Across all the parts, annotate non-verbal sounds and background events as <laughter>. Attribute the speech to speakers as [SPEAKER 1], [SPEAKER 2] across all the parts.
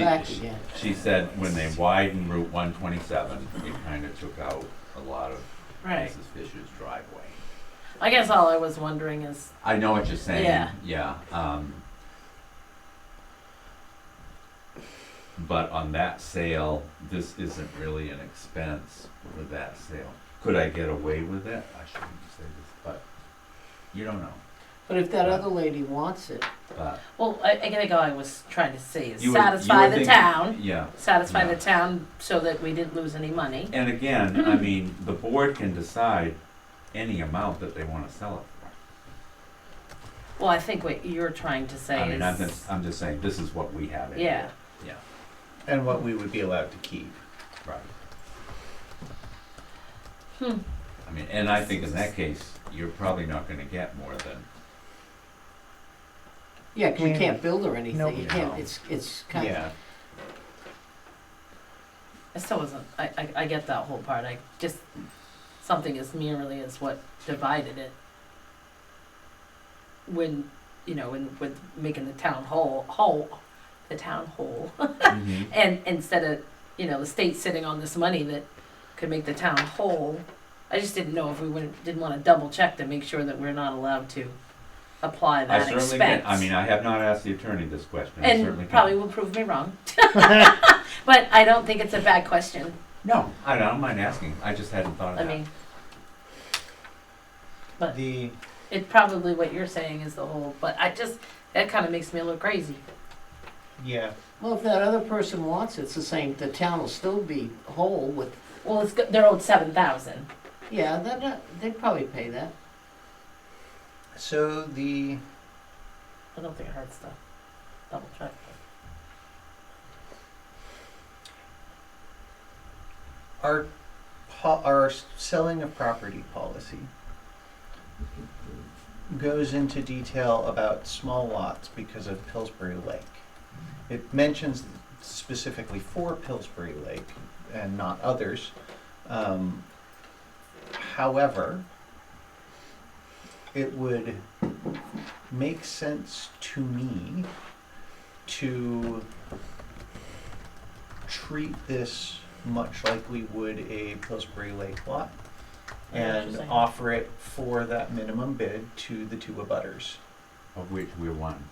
[SPEAKER 1] back again.
[SPEAKER 2] She said when they widened Route one twenty-seven, it kind of took out a lot of
[SPEAKER 3] Right.
[SPEAKER 2] Mrs. Fisher's driveway.
[SPEAKER 3] I guess all I was wondering is,
[SPEAKER 2] I know what you're saying.
[SPEAKER 3] Yeah.
[SPEAKER 2] Yeah, um. But on that sale, this isn't really an expense for that sale. Could I get away with it? I shouldn't say this, but you don't know,
[SPEAKER 1] But if that other lady wants it,
[SPEAKER 2] but.
[SPEAKER 3] well, I, I think all I was trying to say is
[SPEAKER 2] you were- you
[SPEAKER 3] satisfy
[SPEAKER 2] were
[SPEAKER 3] the
[SPEAKER 2] thinking-
[SPEAKER 3] town,
[SPEAKER 2] Yeah,
[SPEAKER 3] satisfy the
[SPEAKER 2] Yeah.
[SPEAKER 3] town so that we didn't lose any money.
[SPEAKER 2] and again,
[SPEAKER 3] <laughs>
[SPEAKER 2] I mean, the board can decide any amount that they wanna sell it for.
[SPEAKER 3] Well, I think what you're trying to
[SPEAKER 2] I
[SPEAKER 3] say
[SPEAKER 2] mean, I'm
[SPEAKER 3] is,
[SPEAKER 2] just, I'm just saying, this is what we have in
[SPEAKER 3] yeah,
[SPEAKER 2] here. Yeah,
[SPEAKER 4] And what we would be allowed to keep.
[SPEAKER 2] right.
[SPEAKER 3] Hmm.
[SPEAKER 2] I mean, and I think in that case, you're probably not gonna get more than,
[SPEAKER 1] yeah, 'cause you
[SPEAKER 4] Yeah.
[SPEAKER 1] can't build or anything, you
[SPEAKER 2] Nope.
[SPEAKER 1] can't, it's, it's kind of,
[SPEAKER 4] Yeah.
[SPEAKER 3] I still wasn't, I, I, I get that whole part, I just, something as merely as what divided it. When, you know, when, with making the town whole, whole, the town whole.
[SPEAKER 4] Mm-hmm.
[SPEAKER 3] And instead of, you know, the state sitting on this money that could make the town whole, I just didn't know if we wouldn't, didn't wanna double check to make sure that we're not allowed to apply
[SPEAKER 2] I
[SPEAKER 3] that
[SPEAKER 2] certainly can,
[SPEAKER 3] expense.
[SPEAKER 2] I mean, I have not asked the attorney this question, I certainly
[SPEAKER 3] And
[SPEAKER 2] can.
[SPEAKER 3] probably will prove
[SPEAKER 2] <laughs>
[SPEAKER 3] me wrong. <laughs> But I don't think it's a bad question,
[SPEAKER 2] No, I don't mind asking, I just hadn't thought
[SPEAKER 3] I
[SPEAKER 2] of that.
[SPEAKER 3] mean, But-
[SPEAKER 4] The,
[SPEAKER 3] it probably what you're saying is the whole, but I just, that kinda makes me look crazy.
[SPEAKER 4] yeah,
[SPEAKER 1] well, if that other person wants it, it's the same, the town will still be whole with,
[SPEAKER 3] Well, it's, go- they're owed seven thousand.
[SPEAKER 1] yeah, they're not, they'd probably pay that.
[SPEAKER 4] so the,
[SPEAKER 3] I don't think it hurts to double check.
[SPEAKER 4] our, po- our selling of property policy goes into detail about small lots because of Pillsbury Lake. It mentions specifically for Pillsbury Lake and not others. Um, however, it would make sense to me to treat this much like we would a Pillsbury Lake lot
[SPEAKER 3] I know what you're
[SPEAKER 4] and
[SPEAKER 3] saying.
[SPEAKER 4] offer it for that minimum bid to the two abutters.
[SPEAKER 2] Of which we're one.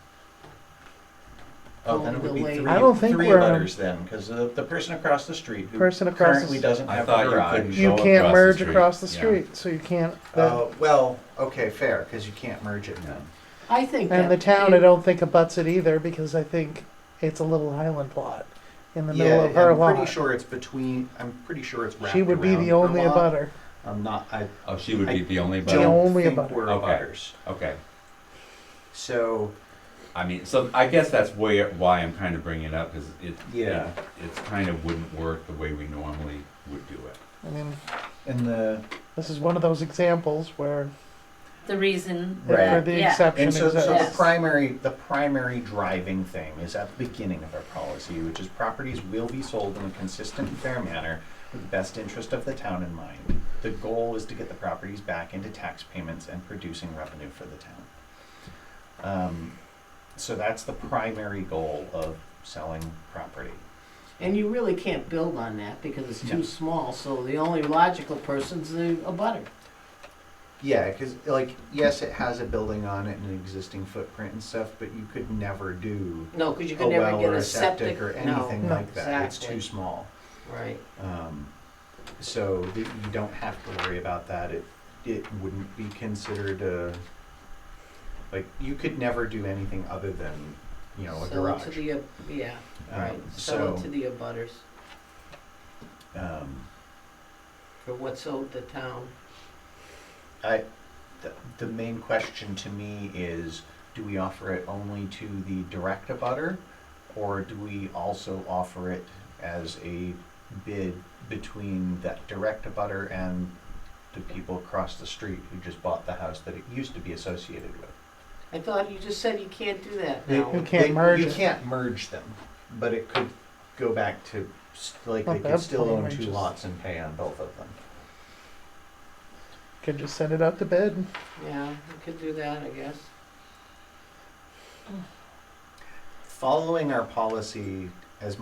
[SPEAKER 4] Oh, then it would be
[SPEAKER 1] Oh, the
[SPEAKER 4] three,
[SPEAKER 1] lady.
[SPEAKER 5] I don't think
[SPEAKER 4] three
[SPEAKER 5] we're- um,
[SPEAKER 4] abutters then, because the, the person across the street who
[SPEAKER 5] Person across the
[SPEAKER 4] currently
[SPEAKER 5] s-
[SPEAKER 4] doesn't
[SPEAKER 2] I
[SPEAKER 4] have
[SPEAKER 2] thought
[SPEAKER 4] a
[SPEAKER 2] your
[SPEAKER 4] road
[SPEAKER 2] eye
[SPEAKER 4] couldn't-
[SPEAKER 2] Go
[SPEAKER 5] You can't
[SPEAKER 2] across the
[SPEAKER 5] merge
[SPEAKER 2] street,
[SPEAKER 5] across the
[SPEAKER 2] yeah.
[SPEAKER 5] street, so you can't, that-
[SPEAKER 4] Oh, well, okay, fair, because you can't merge it then.
[SPEAKER 1] I think that.
[SPEAKER 5] and the town, I don't think abuts it either, because I think it's a little island lot in the middle of her
[SPEAKER 4] I'm
[SPEAKER 5] lot.
[SPEAKER 4] pretty sure it's between. I'm pretty sure it's wrapped
[SPEAKER 5] She would be
[SPEAKER 4] around
[SPEAKER 5] the
[SPEAKER 4] her
[SPEAKER 5] only
[SPEAKER 4] lot.
[SPEAKER 5] abutter.
[SPEAKER 4] I'm not. I
[SPEAKER 2] Oh, she would be the only,
[SPEAKER 4] don't
[SPEAKER 2] but,
[SPEAKER 5] only
[SPEAKER 4] think
[SPEAKER 5] abutter.
[SPEAKER 4] we're
[SPEAKER 2] Okay.
[SPEAKER 4] abutters.
[SPEAKER 2] okay.
[SPEAKER 4] So
[SPEAKER 2] I mean, so I guess that's where, why I'm kind of bringing it up, because it,
[SPEAKER 4] Yeah.
[SPEAKER 2] it, it's kind of wouldn't work the way we normally would do it.
[SPEAKER 5] I mean,
[SPEAKER 4] in the
[SPEAKER 5] this is one of those examples where,
[SPEAKER 3] The reason
[SPEAKER 4] Right.
[SPEAKER 5] for
[SPEAKER 3] that,
[SPEAKER 5] the
[SPEAKER 3] yeah.
[SPEAKER 5] exception
[SPEAKER 4] and so, so the
[SPEAKER 3] Yes.
[SPEAKER 5] exists.
[SPEAKER 4] primary the primary driving thing is at the beginning of our policy, which is properties will be sold in a consistent and fair manner with the best interest of the town in mind. The goal is to get the properties back into tax payments and producing revenue for the town. Um, so that's the primary goal of selling property.
[SPEAKER 1] And you really can't build on that because it's too
[SPEAKER 4] No.
[SPEAKER 1] small, so the only logical person's the abutter.
[SPEAKER 4] Yeah, because like yes, it has a building on it and an existing footprint and stuff, but you could never do
[SPEAKER 1] No, because you
[SPEAKER 4] a
[SPEAKER 1] could never
[SPEAKER 4] Oh, well
[SPEAKER 1] get
[SPEAKER 4] or
[SPEAKER 1] a
[SPEAKER 4] a septic
[SPEAKER 1] septic,
[SPEAKER 4] or
[SPEAKER 1] no,
[SPEAKER 4] anything
[SPEAKER 5] No.
[SPEAKER 4] like that. It's
[SPEAKER 1] Exactly.
[SPEAKER 4] too small.
[SPEAKER 1] right.
[SPEAKER 4] Um, so th- you don't have to worry about that. It, it wouldn't be considered a, like, you could never do anything other than, you know, a
[SPEAKER 1] Sell it
[SPEAKER 4] garage.
[SPEAKER 1] to the, ab- yeah,
[SPEAKER 4] Um,
[SPEAKER 1] right, sell it to
[SPEAKER 4] So,
[SPEAKER 1] the abutters
[SPEAKER 4] um,
[SPEAKER 1] for what's owed the town.
[SPEAKER 4] I, the, the main question to me is, do we offer it only to the direct abutter? Or do we also offer it as a bid between that direct abutter and the people across the street who just bought the house that it used to be associated with?
[SPEAKER 1] I thought you just said you can't do that
[SPEAKER 4] They-
[SPEAKER 1] now.
[SPEAKER 5] You can't
[SPEAKER 4] they-
[SPEAKER 5] merge
[SPEAKER 4] You
[SPEAKER 5] it.
[SPEAKER 4] can't merge them, but it could go back to s- like
[SPEAKER 5] Not
[SPEAKER 4] they could
[SPEAKER 5] bad
[SPEAKER 4] still
[SPEAKER 5] plan,
[SPEAKER 4] own
[SPEAKER 5] I
[SPEAKER 4] two
[SPEAKER 5] just-
[SPEAKER 4] lots and pay on both of them.
[SPEAKER 5] Could just send it out to bid.
[SPEAKER 1] Yeah, you could do that, I guess.
[SPEAKER 4] Following our policy